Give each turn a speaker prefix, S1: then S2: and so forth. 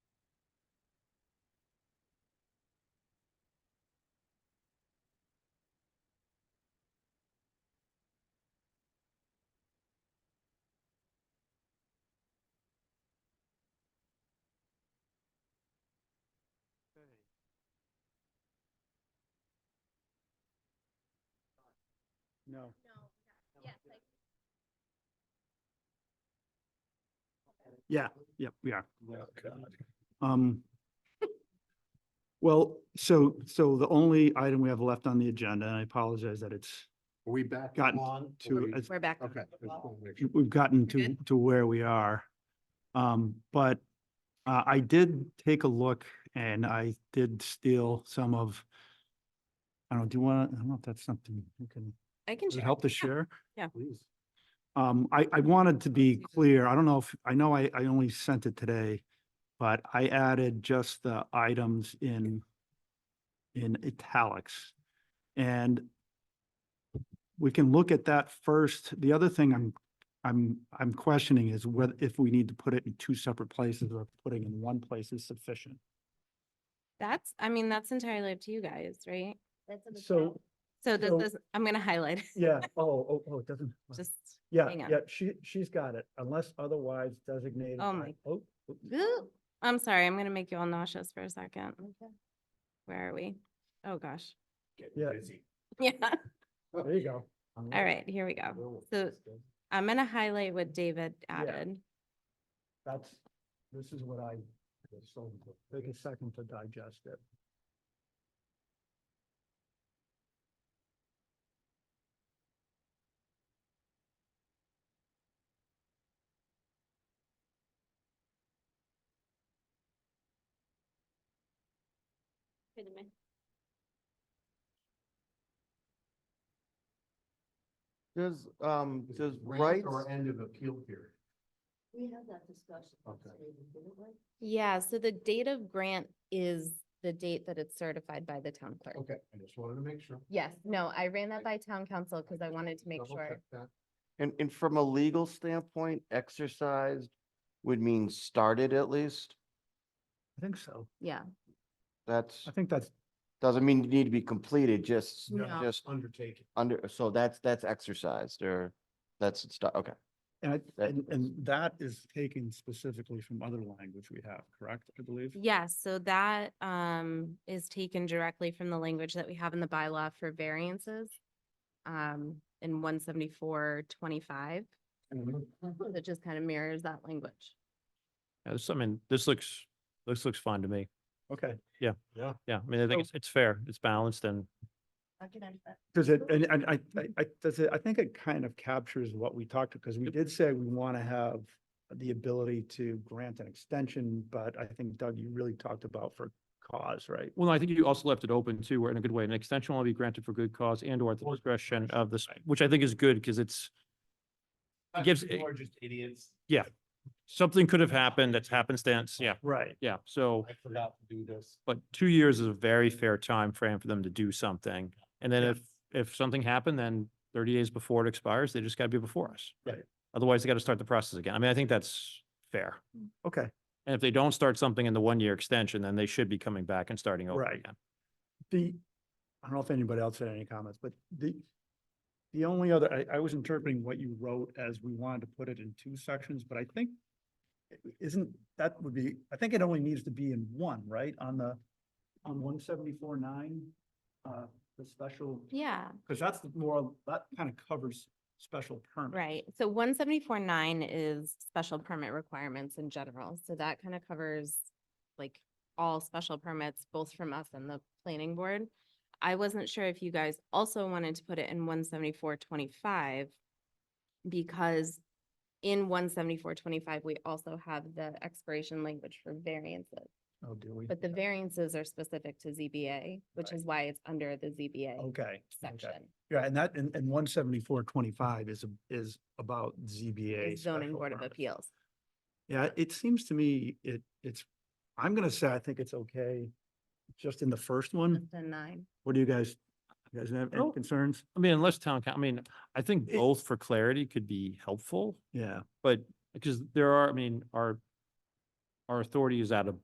S1: No.
S2: Yeah, like,
S1: Yeah, yep, we are.
S3: Oh, God.
S1: Um, well, so, so the only item we have left on the agenda, and I apologize that it's
S3: Are we back
S1: Gotten
S3: on? Are
S1: to,
S3: we-
S1: as-
S4: We're back.
S3: Okay. just wanna make sure.
S1: we've gotten
S4: You're
S1: to, to where we are. Um, but, uh, I did take a look and I did steal some of, I don't, do you want, I don't know if that's something you can,
S4: I can
S1: does it
S4: share.
S1: help to share?
S3: Please.
S1: Um, I, I wanted to be
S4: Susan.
S1: clear. I don't know if, I know I, I only sent it today, but I added just the items in, in italics. And we can look at that first. The other thing I'm, I'm, I'm questioning is whether, if we need to put it in two separate places or if putting in one place is sufficient.
S4: That's, I mean, that's entirely up to you guys, right?
S2: that's in the
S1: So-
S2: top.
S4: So this
S1: So-
S4: is, I'm gonna highlight, it,
S1: Yeah, oh, oh, oh, it doesn't.
S4: just,
S1: Yeah,
S4: hang on.
S1: yeah, she, she's got it unless otherwise designated.
S4: Oh
S1: by-
S4: my-
S1: Oh, oh.
S4: Ooh, I'm sorry, I'm gonna make you all nauseous for a second. Where are we? Oh, gosh.
S1: Yeah.
S4: Yeah,
S1: There you go.
S4: all right, here we go. So I'm gonna highlight what David added.
S1: That's, this is what I, so take a second to digest it.
S2: Wait a minute.
S5: Does, um,
S3: Is it
S5: does
S3: grant
S5: rights,
S3: Or end of appeal period.
S2: We had that discussion.
S3: Okay.
S2: yesterday, didn't we?
S4: Yeah, so the date of grant is the date that it's certified by the town clerk.
S3: Okay, I just wanted to make sure.
S4: Yes, no, I ran that by town council because I wanted to make
S3: Double
S4: sure.
S3: check that.
S5: and, and from a legal standpoint, exercised would mean started at least?
S1: I think so.
S4: Yeah,
S5: That's,
S1: I think that's,
S5: doesn't mean you need to be completed, just,
S4: No.
S5: just
S3: Undertaking.
S5: under, so that's, that's exercised or that's, it's sta- okay.
S1: and, I-
S5: That-
S1: and, and that is taken specifically from other language we have, correct, I believe?
S4: Yes, so that um is taken directly from the language that we have in the bylaw for variances. Um, in one seventy-four twenty-five,
S3: Mm-hmm.
S4: that just kind of mirrors that language.
S6: Yeah, this, I mean, this looks, this looks fine to me.
S1: Okay,
S6: Yeah, I mean, I think it's, it's fair, it's balanced and
S2: I can add that.
S1: does it, and, and I, I- I, does it, I think it kind of captures what we talked, because we did say we want to have the ability to grant an extension, but I think Doug, you really talked about for cause, right?
S6: Well, I think you also left it open too, where in a good way, an extension will be granted for good cause and or at the
S3: Or
S6: discretion
S3: discretion,
S6: of this,
S3: right.
S6: which I think is good because it's
S3: Uh,
S6: gives
S3: people
S6: a-
S3: are just idiots.
S6: something could have happened that's happenstance. Yeah,
S1: Right.
S6: yeah. So,
S3: I forgot to do this.
S6: but two years is a very fair time frame for them to do something. And then if, if something happened, then thirty days before it expires, they just got to be before us.
S1: Right.
S6: Otherwise, they got to start the process again. I mean, I think that's fair.
S1: Okay,
S6: And if they don't start something in the one-year extension, then they should be coming back and starting over
S1: Right.
S6: again.
S1: The, I don't know if anybody else had any comments, but the, the only other, I, I was interpreting what you wrote as we wanted to put it in two sections, but I think isn't, that would be, I think it only needs to be in one, right? On the, on one seventy-four nine, uh, the special,
S4: Yeah,
S1: because that's the more, that kind of covers special permit.
S4: right. So one seventy-four nine is special permit requirements in general. So that kind of covers like all special permits, both from us and the planning board. I wasn't sure if you guys also wanted to put it in one seventy-four twenty-five because in one seventy-four twenty-five, we also have the expiration language for variances.
S1: Oh, do we?
S4: But the variances are specific to ZBA, which
S1: Right.
S4: is why it's under the ZBA
S1: Okay.
S4: section,
S1: okay. Yeah, and that, and, and one seventy-four twenty-five is, a- is about ZBA.
S4: is zoning
S1: special
S4: board of
S1: permits.
S4: appeals.
S1: Yeah, it seems to me it, it's, I'm gonna say I think it's okay just in the first one.
S4: The nine.
S1: What do you guys, you guys have any
S6: No.
S1: concerns?
S6: I mean, unless town, coun- I mean, I think
S1: It-
S6: both for clarity could be helpful,
S1: Yeah.
S6: but because there are, I mean, our, our authority is out of